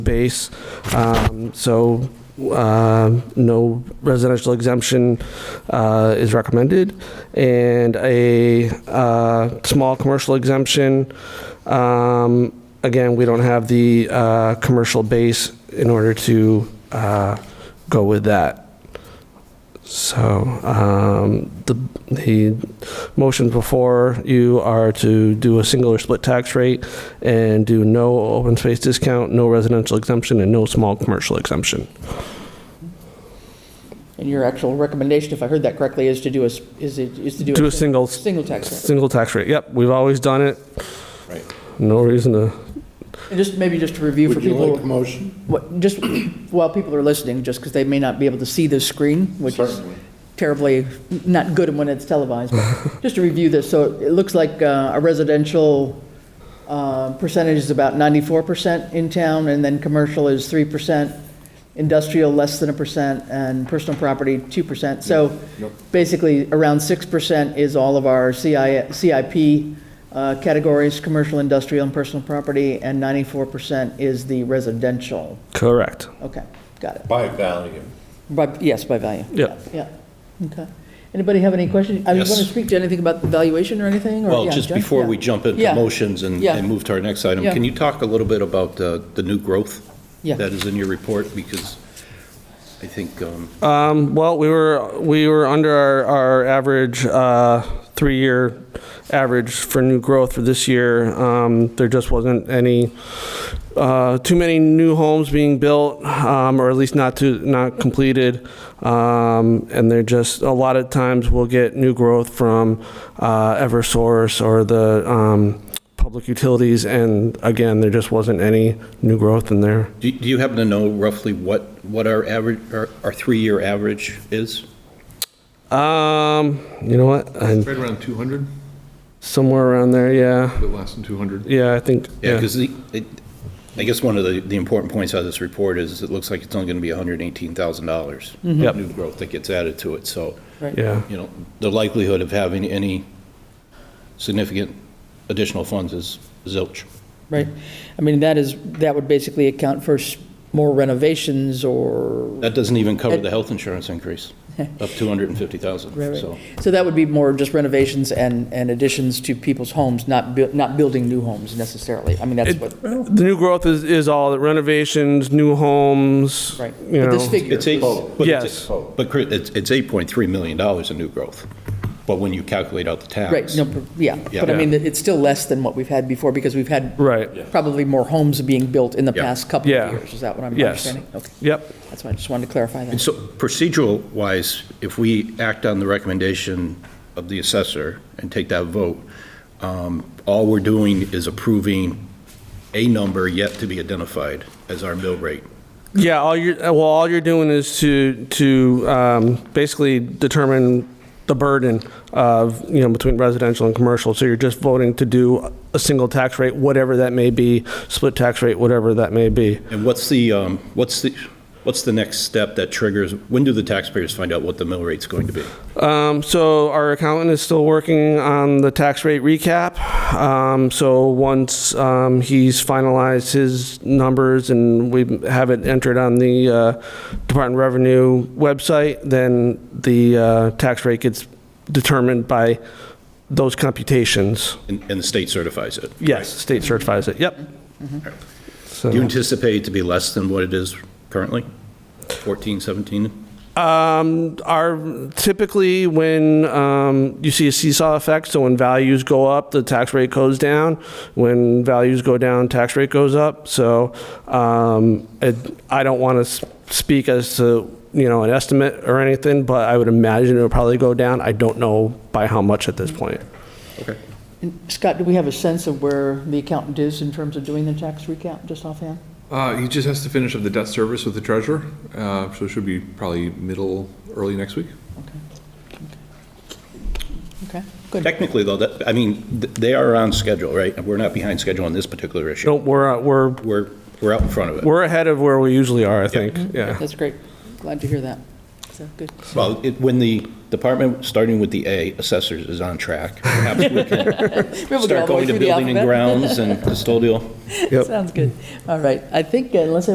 base. Um, So uh, no residential exemption uh, is recommended, and a uh, small commercial exemption. Um, Again, we don't have the uh, commercial base in order to uh, go with that. So um, the the motions before you are to do a single or split tax rate and do no open space discount, no residential exemption, and no small commercial exemption. And your actual recommendation, if I heard that correctly, is to do a, s- is it, is to do a... Do a single, Single tax rate. single tax rate. Yep, we've always done it. Right. No reason to, And just, maybe just to review for Would you like a people, motion? what, just while people are listening, just because they may not be able to see this screen, which is terribly not good when it's televised, but just to review this, so it looks like uh, a residential uh, percentage is about 94% in town, and then commercial is 3%, industrial less than a percent, and personal property 2%. So Yep. basically, around 6% is all of our CI CIP uh, categories, commercial, industrial, and personal property, and 94% is the residential. correct. Okay, got it. By value. By- Yes, by value. Yep. Yeah, okay. Anybody have any questions? I mean, want to Yes. speak to anything about the valuation or anything? or- Well, yeah, just Jeff? before Yeah. we jump into Yeah. motions and Yeah. and move to our next item, Yeah. can you talk a little bit about uh, the new growth Yeah. that is in your report? Because I think, um, Um, well, we were, we were under our, our average, uh, three-year average for new growth for this year. Um, there just wasn't any, uh, too many new homes being built, um, or at least not to, not completed. Um, and they're just, a lot of times we'll get new growth from, uh, Eversource or the, um, public utilities. And again, there just wasn't any new growth in there. do do you happen to know roughly what, what our average, our our three-year average is? Um, you know what? I- Right around 200, Somewhere around there, yeah. a bit less than 200. Yeah, I think, Yeah, yeah, because I guess one of the, the important points out of this report is it looks like it's only going to be $118,000 Yep. new growth that gets added to it. So, yeah, you know, the likelihood of having any significant additional funds is zilch. Right. I mean, that is, that would basically account for s- more renovations or, That doesn't even cover the health insurance increase of 250,000, Right, right. so. so that would be more just renovations and, and additions to people's homes, not, buil- not building new homes necessarily. I mean, that's It- what, The new growth is, is all the renovations, new homes, right. you But this know. figure, It's eight, but Yes. it's, but Chris, it's it's 8.3 million dollars in new growth, but when you calculate out the tax. right, no, per- yeah. Yeah. But I mean, it's still less than what we've had before because we've had Right, probably more homes being built in the Yeah. past couple Yeah. of years. Is that what I'm Yes. understanding? Okay, yep, that's why I just wanted to clarify And that. so procedural-wise, if we act on the recommendation of the assessor and take that vote, um, all we're doing is approving a number yet to be identified as our mill rate. yeah, all you're, well, all you're doing is to, to, um, basically determine the burden of, you know, between residential and commercial, so you're just voting to do a single tax rate, whatever that may be, split tax rate, whatever that may be. And what's the, um, what's the, what's the next step that triggers, when do the taxpayers find out what the mill rate's going to be? Um, so our accountant is still working on the tax rate recap. Um, so once um, he's finalized his numbers and we have it entered on the uh, Department of Revenue website, then the uh, tax rate gets determined by those computations. And and the state certifies it? Yes, state certifies it. Yep. Do you So, anticipate it to be less than what it is currently? 14, 17? um, our typically when um, you see a seesaw effect, so when values go up, the tax rate goes down. When values go down, tax rate goes up. So um, it, I don't want to speak as to you know an estimate or anything, but I would imagine it would probably go down. I don't know by how much at this point. Okay. And Scott, do we have a sense of where the accountant is in terms of doing the tax recap, just offhand? Uh, He just has to finish up the debt service with the treasurer, uh, so it should be probably middle, early next week. Okay, good. Technically, though, that, I mean, th- they are on schedule, right? And We're not behind schedule on this particular issue. Don't we're uh, we're We're, we're out in front of it. we're ahead of where we usually are. I think. Yeah. That's great. Glad to hear that. So, good. Well, it- when the department, starting with the A, assessors is on track, perhaps we can We'll go all start the way going to through the building and alphabet. grounds and custodial. Yep. Sounds good. All right. I think uh, unless